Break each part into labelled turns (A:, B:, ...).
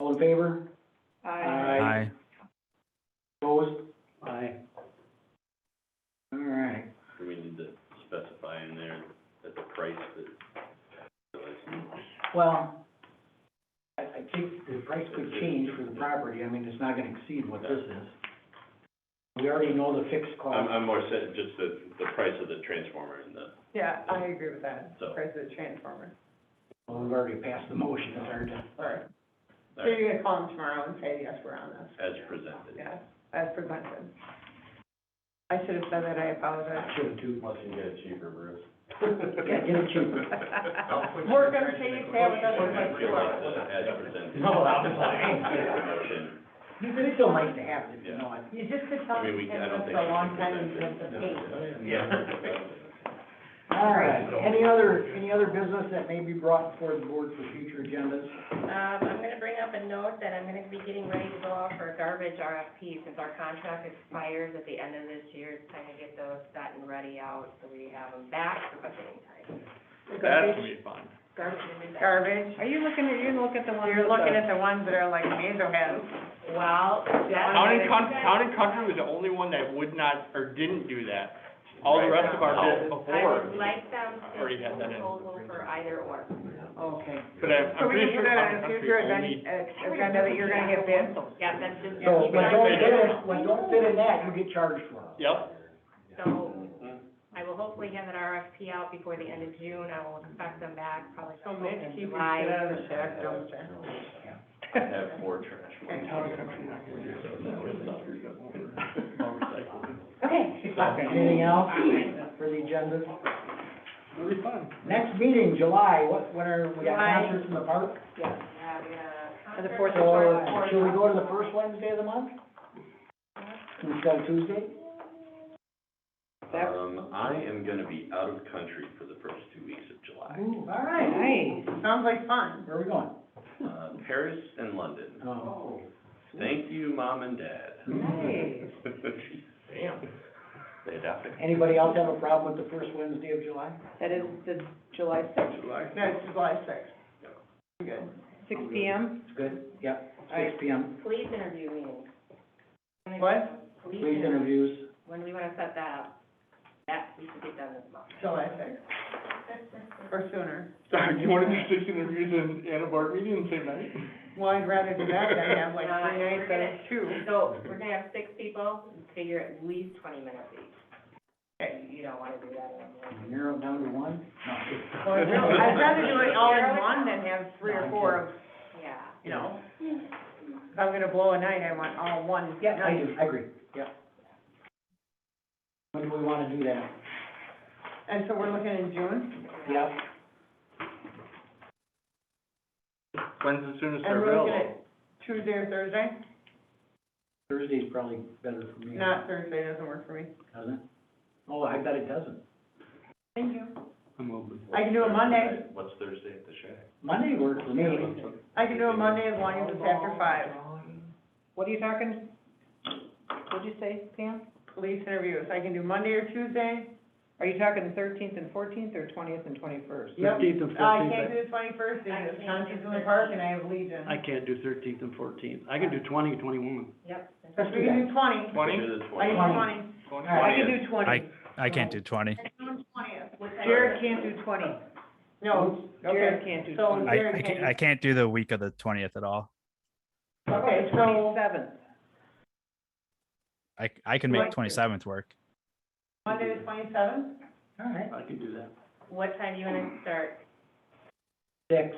A: in favor?
B: Aye.
A: Opposed?
C: Aye.
A: All right.
D: Do we need to specify in there that the price that,
A: Well, I, I think the price could change for the property. I mean, it's not gonna exceed what this is. We already know the fixed
B: Um,
D: I'm,
A: cost.
D: I'm more saying just the, the price of the transformer and the,
B: Yeah, I agree with that,
D: So-
B: price of the transformer.
A: Well, We've already passed the motion. It's hard to,
B: All right. So you're gonna call them tomorrow and say, yes, we're on this,
D: as presented.
B: yeah, as presented. I should have said that, I apologize.
C: Should have two.
D: Unless you can get it cheaper, Bruce.
A: yeah, get it cheaper.
B: We're gonna see you have another one tomorrow.
D: As presented.
A: No, I'm lying.
D: Motion,
A: You could still like to have it if you know it.
B: You just could
D: I mean, we, I don't think.
B: for a long time and
D: it's
B: just a pain.
A: All right, any other, any other business that may be brought before the board for future agendas?
E: Um, I'm gonna bring up a note that I'm gonna be getting ready to go out for a garbage RFP, since our contract expires at the end of this year, it's time to get those set and ready out, so we have them back for budgeting time.
B: Garbage-
C: be fun.
E: Garbage. and-
A: Er,
B: Garbage. Are you looking at, you look at the ones. You're looking at the ones that are like major heads.
E: Well, that's.
C: Town and Coun- Town and Country was the only one that would not, or didn't do that. All the rest of our bid
E: I
C: before,
E: would like them to
C: Already had that in.
E: proposal for either or.
B: Okay.
C: but I'm,
B: So
C: I'm
B: we
C: pretty
B: can put that in
C: sure Town and
B: the
C: Country
B: future
C: only,
B: agenda, uh, agenda that you're gonna get bids.
E: Yeah, that's just.
A: So,
E: keep
A: when
E: it on
A: don't
E: the
A: fit
E: agenda.
A: in, when don't fit in that, you get charged for it.
C: yep,
E: So, I will hopefully have an RFP out before the end of June, I will expect them back probably sometime in July.
B: out of the shack dumpster.
D: I have four trash.
B: Okay.
E: Okay.
A: Anything else for the agenda? Next meeting, July, what, what are, we got
B: July.
A: concerts in the park?
B: Yeah.
E: And
B: And the fourth
A: So, should we go to the first Wednesday of the month? Instead of Tuesday?
D: Um, I am gonna be out of country for the first two weeks of July,
A: Ooh, all right,
B: Sounds like fun.
A: where are we going?
D: uh, Paris and London.
A: Oh.
D: Thank you, mom and dad.
B: Nice.
D: Damn. They adopted.
A: Anybody else have a problem with the first Wednesday of July?
B: That is the July sixth.
D: July.
B: No, it's July sixth. Good. Six P M?
A: It's good? Yep,
B: All
A: six
B: right.
A: P M,
E: Police interview meeting.
B: What?
E: Police
A: police
E: interview,
A: interviews.
E: when do we wanna set that up? That, we should get done this month.
B: July sixth. Or sooner.
C: Sorry, do you wanna do six interviews and, and a board meeting the same night?
B: Well, I'd rather do that than have like
E: Uh,
B: three nights
E: we're
B: than two.
E: So, we're gonna have six people, figure at least twenty minutes each.
B: Okay.
E: You don't wanna do that anymore.
A: Narrow it down to one?
B: Well, I'd rather do it all in one than have three or four of,
E: Yeah.
B: you know. If I'm gonna blow a night, I want all one
A: Yeah, I
B: night.
A: do, I agree, yeah. When do we wanna do that?
B: And so we're looking in June?
A: Yep,
C: When's the
B: And
C: soonest they're
B: we're looking
C: available?
B: at Tuesday or Thursday?
A: Thursday's probably better for me.
B: Not Thursday, doesn't work for me.
A: Doesn't it? Oh, I bet it doesn't.
B: Thank you.
C: I'm open.
B: I can do it Monday.
D: What's Thursday at the shack?
A: Monday works for me.
B: I can do a Monday as long as it's after five. What are you talking, what'd you say, Pam? Police interviews, I can do Monday or Tuesday. Are you talking the thirteenth and fourteenth, or twentieth and twenty-first? Yep,
C: Fifteenth and
B: I can't do the twenty-first, because
E: I can't do
B: Concerts in the Park and I have Legion.
F: I can't do thirteenth and fourteenth. I can do twenty and twenty-one.
E: Yep.
A: Let's
B: We
A: do
B: can
A: that.
B: do twenty,
C: Twenty?
D: Do the
B: I can
D: twenty.
B: do twenty,
C: Twenty?
A: All
B: I
A: right.
B: can do twenty.
G: I can't do twenty.
B: Jared can't do twenty. No,
F: Jared
B: okay,
F: can't do
B: so
F: twenty.
G: I,
B: Jared
G: I
B: can't.
G: can't, I can't do the week of the twentieth at all.
B: Okay, so
F: Twenty-seventh.
G: I, I can
B: Right.
G: make twenty-seventh work.
B: Monday the twenty-seventh,
A: All right,
F: I can do that.
E: What time do you wanna start?
A: six.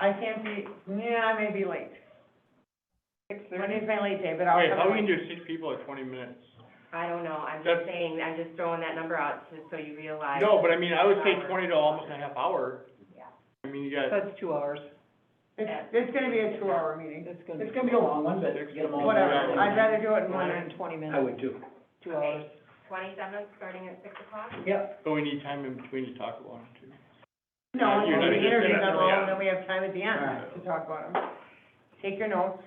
B: I can't be, yeah, I may be late. Monday's my late day, but I'll
C: Wait,
B: come.
C: how
B: up
C: we can
B: with-
C: do six people at twenty minutes?
E: I don't know, I'm
C: That's-
E: just saying, I'm just throwing that number out, just so you realize.
C: No, but I mean, I would say twenty to almost a half hour.
E: Yeah.
C: I mean, you got,
F: That's two hours.
B: It's, it's gonna be a two-hour meeting.
F: That's gonna be
A: It's gonna be a long one, but get them all.
B: Whatever,
C: hours.
B: I'd rather do it
F: one
B: in one
F: hour
B: night.
F: and twenty
A: I
F: minutes,
A: would too.
F: two hours.
E: Twenty-seventh, starting at six o'clock?
A: Yep,
C: but we need time in between to talk about it too.
B: No, we
C: You're
B: do
C: not
B: the
C: interested
B: interviews
C: in that,
B: on all,
C: yeah.
B: and then we have time at the end
A: Alright.
B: to talk about them. Take your notes.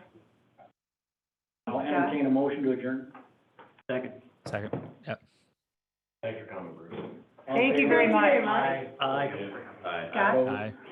A: I'll entertain a motion to adjourn.
F: Second.
G: Second, yep.
D: Thanks for coming, Bruce.
A: All in
B: Thank you
A: favor?
B: very much.
A: Aye.
F: Aye.
D: Aye.
B: Scott?
A: Opposed?
G: Aye.